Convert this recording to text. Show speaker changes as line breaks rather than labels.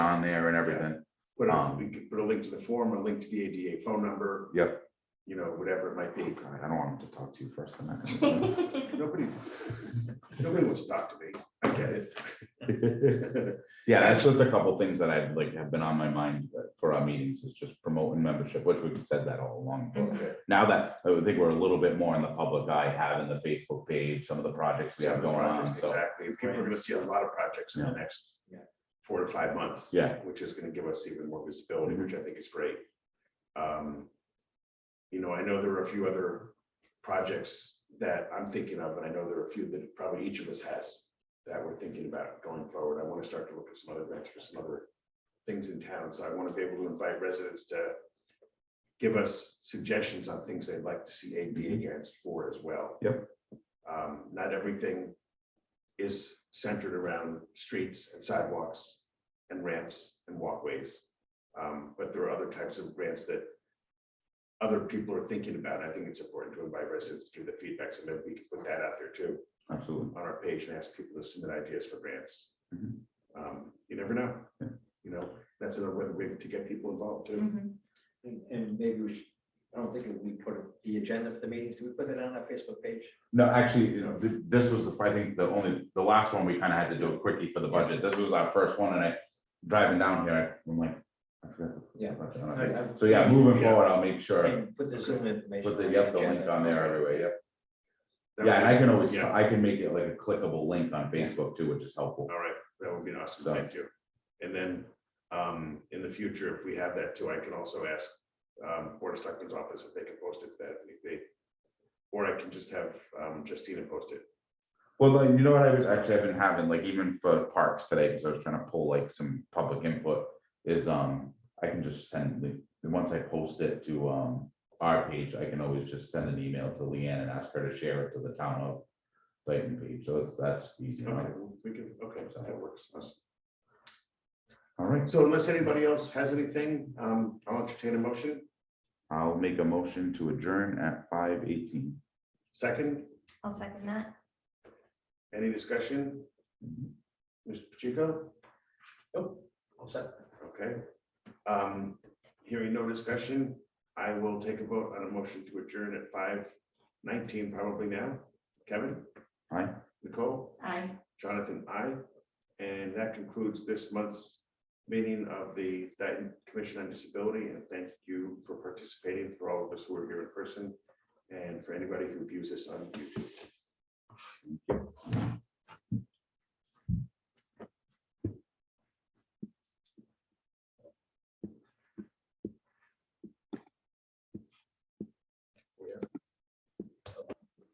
there and everything.
Put a,
Um,
we could put a link to the form, a link to the ADA phone number.
Yep.
You know, whatever it might
Oh,
be.
God, I don't want him to talk to you first tonight.
Nobody, nobody wants to talk to me. I get it.
Yeah, that's just a couple things that I've like have been on my mind that- for our meetings is just promoting membership, which we've said that all along. but
Okay.
Now that I would think we're a little bit more in the public eye, having the Facebook page, some of the projects we
Some
have
of the
going on,
projects,
so.
Exactly. People are gonna see a lot of projects in the next
Yeah.
four to five months.
Yeah.
Which is gonna give us even more visibility,
Mhm.
which I think is great. Um, You know, I know there are a few other projects that I'm thinking of, and I know there are a few that probably each of us has that we're thinking about going forward. I want to start to look at some other grants for some other things in town, so I want to be able to invite residents to give us suggestions on things they'd like to see ADA grants for as well.
Yep.
Um, Not everything is centered around streets and sidewalks and ramps and walkways. Um, But there are other types of grants that other people are thinking about. and I think it's important to invite residents through the feedback, so maybe we can put that out there too
Absolutely.
on our page and ask people to submit ideas for grants.
Mhm.
Um, You never know,
Yeah.
you know, that's another way to get people involved too.
Mhm.
And- And maybe we should, I don't think we put the agenda for the meetings, do we put that on our Facebook page?
No, actually, you know, th- this was, the- I think, the only, the last one, we kind of had to do a quickie for the budget. This was our first one and I, driving down here, I'm like, I forgot. to put the
Yeah.
budget
I-
on.
I-
So yeah, moving
Yeah.
forward, I'll make sure,
And Put the Zoom information.
put the,
on
yep, the
agenda.
link on there everywhere, yep.
That
Yeah,
would
and
be-
I can always,
Yeah,
I can make it like a clickable link on Facebook too, which is helpful.
all right, that would be awesome,
So-
thank you. And then um, in the future, if we have that too, I can also ask um, Board of Selectmen's office if they can post it that if they. Or I can just have um, Justina post it.
Well, like, you know what I was actually, I've been having, like even for parks today, because I was trying to pull like some public input, is, um, I can just send the, and once I post it to, um, our page, I can always just send an email to Leanne and ask her to share it to the town of Dayton page, so it's, that's easy
Okay,
enough.
we can, okay, so that works. Awesome.
All right,
So unless anybody else has anything, um, I'll entertain a motion.
I'll make a motion to adjourn at five eighteen.
Second,
I'll second that.
any discussion? Mr. Pacheco?
Nope, all set.
Okay. Um, hearing no discussion, I will take a vote on a motion to adjourn at five nineteen probably now. Kevin?
Aye.
Nicole?
Aye.
Jonathan, I. And that concludes this month's meeting of the Dayton Commission on Disability, and thank you for participating, for all of us who are here in person, and for anybody who views this on YouTube.